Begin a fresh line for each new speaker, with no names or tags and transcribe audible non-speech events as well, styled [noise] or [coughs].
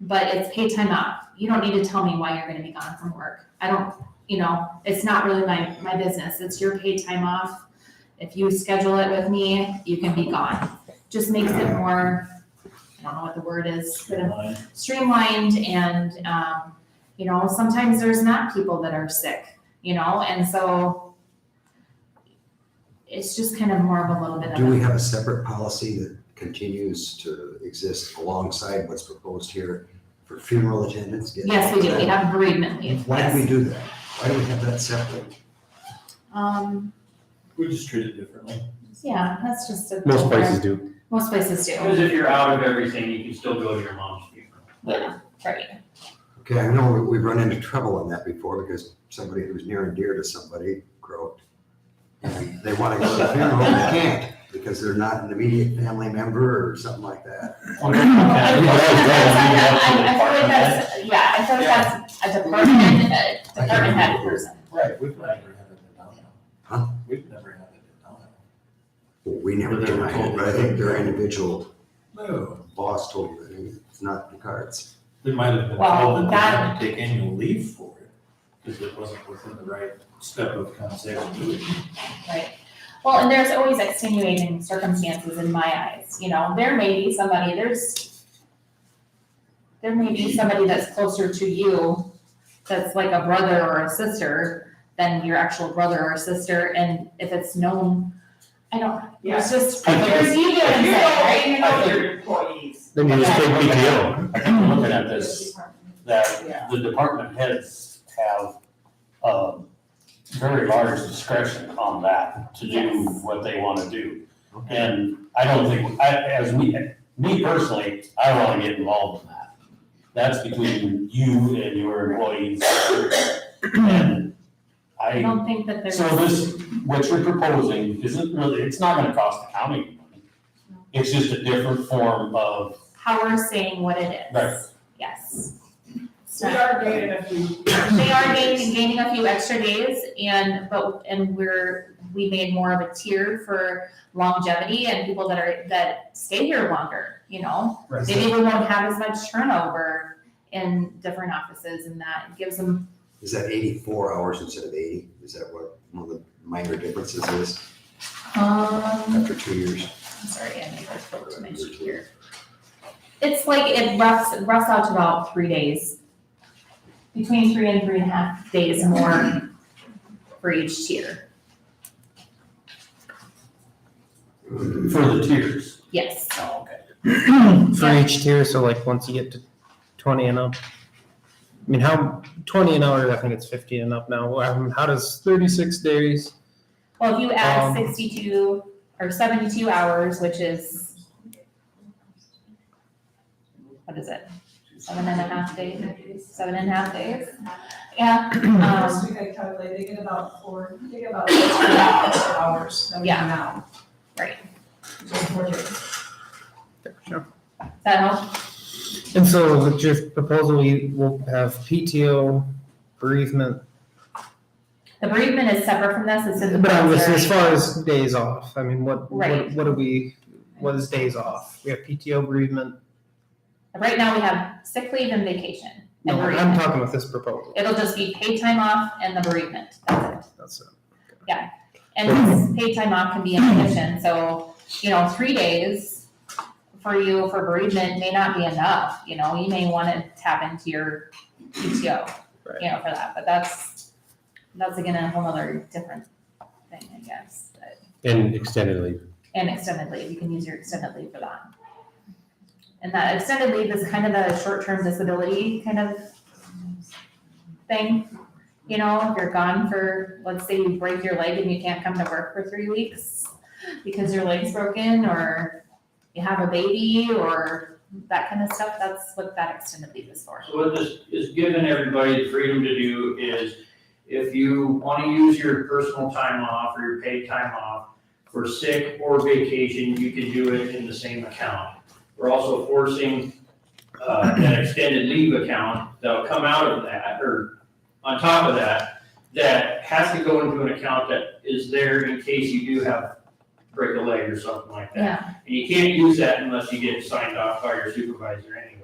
but it's paid time off. You don't need to tell me why you're gonna be gone from work. I don't, you know, it's not really my, my business. It's your paid time off. If you schedule it with me, you can be gone. Just makes it more, I don't know what the word is, but streamlined and, um, you know, sometimes there's not people that are sick, you know, and so it's just kind of more of a little bit of.
Do we
a-
have a separate policy that continues to exist alongside what's proposed here for funeral attendants? getting-
Yes, we do. We have bereavement leave.
Why do we
Yes.
do that? Why do we have that separate?
Um,
We just treat it differently.
yeah, that's just a.
Most places do.
Most places do.
Because if you're out of everything, you can still go to your mom's
[laughs]
funeral.
Yeah, [laughs] right.
Okay, I know we- we've run into trouble on that before because somebody who's near and dear to somebody croaked. And they want to go to the funeral, they can't because they're not an immediate family member or something like that.
I feel like that's- I- I feel like
Right,
that's- Yeah, I feel like that's a department, a department head person.
we've never had it in Downhill.
Huh?
We've never had it in Downhill.
Well, We never
But they were
denied it,
told-
but I think their individual
No.
boss told them it's not in the cards.
They might have been
Well,
told that
that-
they had to take annual leave for it, because it wasn't within the right step of compensation. duty.
Well, and there's always extenuating circumstances in my eyes, you know, there may be somebody, there's there may be somebody that's closer to you, that's like a brother or a sister than your actual brother or sister, and if it's known, I don't, it's just.
I think
There's ego in it, right? You know, you're-
your employees.
Then you just take PTO.
I think we're looking at this, that the department heads have, um, very large discretion on that to do
Yes.
what they wanna do.
Okay.
And I don't think, I, as we, me personally, I don't wanna get involved in that. That's between you and your employees. And
I
I,
don't think that there's.
so this, what you're proposing isn't really, it's not gonna cost the county money. It's just a different form of
how we're saying what it is.
Right.
Yes.
We are dated a few.
They are gaining, gaining a few extra days and, but, and we're, we made more of a tier for longevity and people that are, that stay here longer, you know? Maybe we won't have as much turnover in different offices and that gives them,
Is that eighty-four hours instead of eighty? Is that what one of the minor differences is
um,
after two years?
I'm sorry, I never spoke to my sheet here. It's like it roughs, roughs out to about three days. Between three and three and a half days more for each tier.
Mm-hmm.
For the tiers.
Yes.
Oh, okay.
For each tier, so like once you get to twenty and up. I mean, how, twenty an hour, I think it's fifty and up now, um, how does thirty-six days,
Well, if you add
Um,
sixty-two or seventy-two hours, which is. What is it? Seven and a half days, seven and a half days? Yeah, um,
Last week I calculated, they get about four, they
[coughs]
get about six and a half extra hours that we
Yeah.
come out.
Right.
Just four days.
that helps.
and so with your proposal, you will have PTO, bereavement.
The bereavement is separate from this, it's in the.
But I was, as
voluntary.
far as days off, I mean, what, what,
Right.
what do we, what is days off? We have PTO, bereavement,
Right now, we have sick leave and vacation. and
no, I'm
bereavement.
talking about this proposal,
It'll just be paid time off and the bereavement, that's it.
that's it.
And this paid time off can be in addition, so, you know, three days for you for bereavement may not be enough, you know, you may wanna tap into your PTO, you know, for that, but that's, that's again a whole other different thing, I guess, but,
And extended leave.
and extended leave, you can use your extended leave for that. And that extended leave is kind of a short-term disability kind of thing. You know, if you're gone for, let's say you break your leg and you can't come to work for three weeks because your leg's broken or you have a baby or that kind of stuff, that's what that extended leave is for.
So what this is giving everybody the freedom to do is if you want to use your personal time off or your paid time off for sick or vacation, you can do it in the same account. We're also forcing uh, an extended leave account that'll come out of that or on top of that, that has to go into an account that is there in case you do have break a leg or something like that.
Yeah,
And you can't use that unless you get signed off by your supervisor anyway.